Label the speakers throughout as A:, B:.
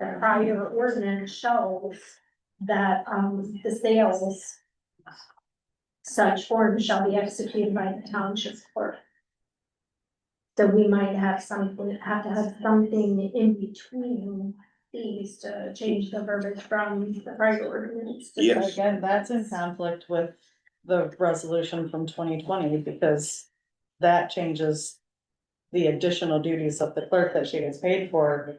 A: the prior ordinance shows that, um, the sales such form shall be executed by the township clerk. So we might have something, have to have something in between these to change the verbiage from the prior ordinance. to
B: Yes.
C: But Again, that's in conflict with the resolution from twenty twenty because that changes the additional duties of the clerk that she gets paid for.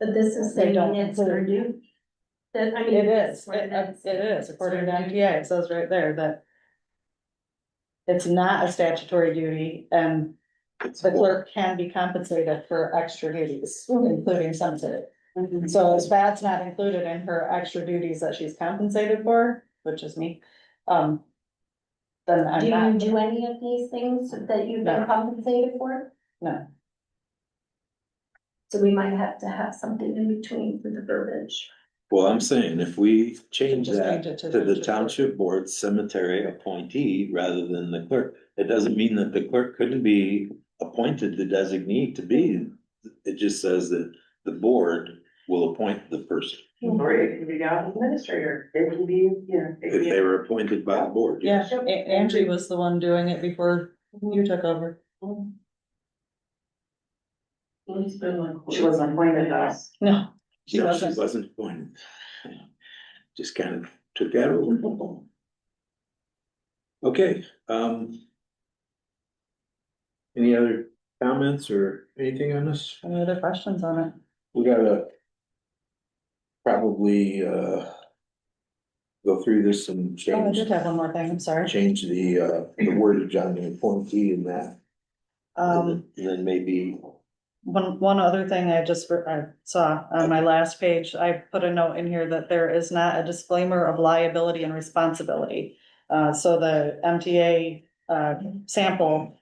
A: But this is
C: They
A: saying
C: don't
A: it's her
C: include-
A: due. That, I mean.
C: It is,
A: what
C: it uh, it is, according to MTA, it says right there that it's not a statutory duty and
B: It's
C: the
B: more-
C: clerk can be compensated for extra duties,
A: Mm-hmm.
C: including sensitive.
D: Mhm.
C: So if that's not included in her extra duties that she's compensated for, which is me, um. Then
A: Do
C: I'm
A: you
C: not,
A: do any of these things that you've been
C: No.
A: compensated for?
C: No.
A: So we might have to have something in between for the verbiage.
B: Well, I'm saying if we change
C: Just
B: that
C: change it to
B: to the
C: the-
B: township board cemetery appointee rather than the clerk, it doesn't mean that the clerk couldn't be appointed the designee to be. It just says that the board will appoint the person
D: Or it can be down administrator, it can be, you know. it can
B: if
D: be-
B: they were appointed by the board.
C: yeah, A- Angie was the one doing it before you took over.
D: She wasn't appointed though.
C: No, She
B: No,
C: wasn't.
B: She wasn't appointed. Just kind of took that over. Okay, um. Any other comments or anything on this?
C: any other questions on it?
B: We gotta. Probably, uh. Go through this and
C: Oh, I
B: change,
C: did have one more thing, I'm sorry.
B: change the, uh, the wordage on the appointee in that.
C: Um,
B: And then maybe,
C: one, one other thing I just, re- I saw on my last page, I put a note in here that there is not a disclaimer of liability and responsibility. Uh, so the MTA, uh, sample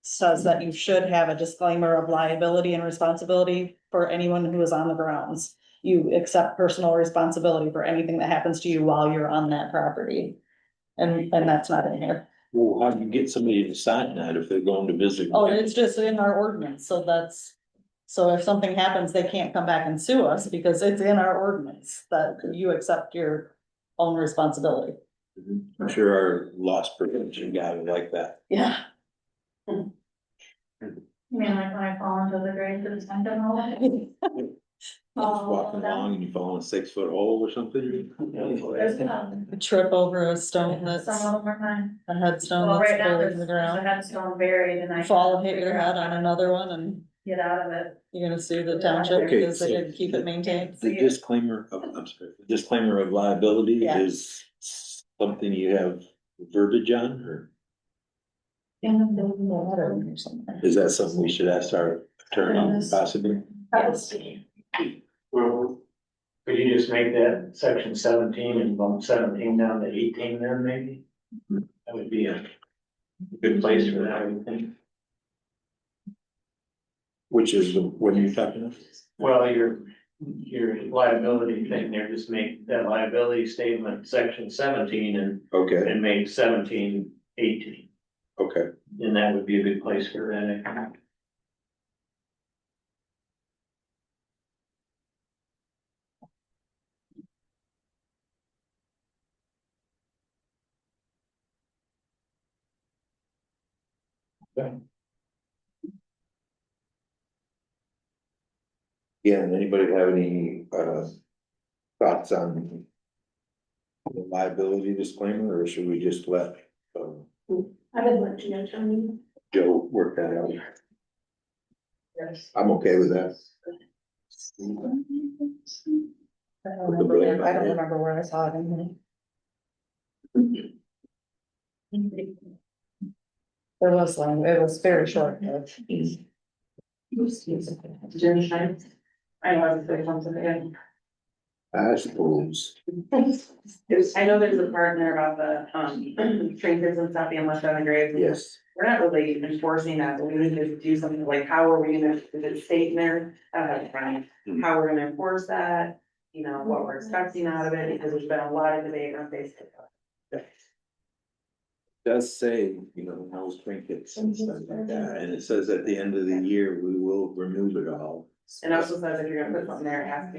C: says that you should have a disclaimer of liability and responsibility for anyone who is on the grounds. You accept personal responsibility for anything that happens to you while you're on that property. And, and that's not in here.
B: well, how do you get somebody to sign that if they're going to visit?
C: Oh, it's just in our ordinance, so that's, so if something happens, they can't come back and sue us because it's in our ordinance that you accept your own responsibility.
B: I'm sure our loss prevention guy would like that.
C: Yeah.
E: You mean like when I fall into the grave to the center and all that?
B: Just walking
E: Oh, that-
B: along and you fall in a six foot hole or something.
E: There's, um,
C: Trip over a stone that's,
E: Some
C: a
E: of them are mine.
C: headstone
E: Well,
C: that's
E: right now,
C: buried
E: there's,
C: in the
E: there's a
C: ground.
E: headstone buried and I.
C: Fall,
E: can't
C: hit your
E: figure out
C: head on
E: how to
C: another one and
E: Get out of it.
C: you're gonna sue the township
B: Okay,
C: because they
B: so-
C: didn't keep it maintained.
B: The disclaimer of, I'm sorry, the disclaimer of liability
C: Yeah.
B: is something you have verbiage on, or is that something we should ask our attorney possibly?
A: Yes.
F: Well, could you just make that section seventeen and bump seventeen down to eighteen then maybe? That would be a good place for that, I would think.
B: Which is, the- what are you talking about?
F: Well, your, your liability thing there, just make that liability statement section seventeen and,
B: Okay,
F: and make seventeen eighteen.
B: okay,
F: And that would be a good place for that. I think.
B: yeah, and anybody have any, uh, thoughts on the liability disclaimer, or should we just let, um,
A: I would let you know, Tony.
B: Joe work that out? I'm okay with that.
C: I don't remember where- I don't remember where I saw it in here. There was one, it was very short.
D: Jenny Shine. I know, I was saying something again.
B: I suppose.
D: I know there's a part in there about the, um, trinkets and stuff being left on the graves.
B: Yes,
D: We're not really enforcing that, but we need to do something like, how are we gonna, is it state in there, uh, Brian, how we're gonna enforce that? You know, what we're expecting out of it, because there's been a lot of debate on Facebook.
B: does say, you know, house trinkets and stuff like that, and it says at the end of the year, we will remove it all.
D: And also says if you're gonna put something there, it has to be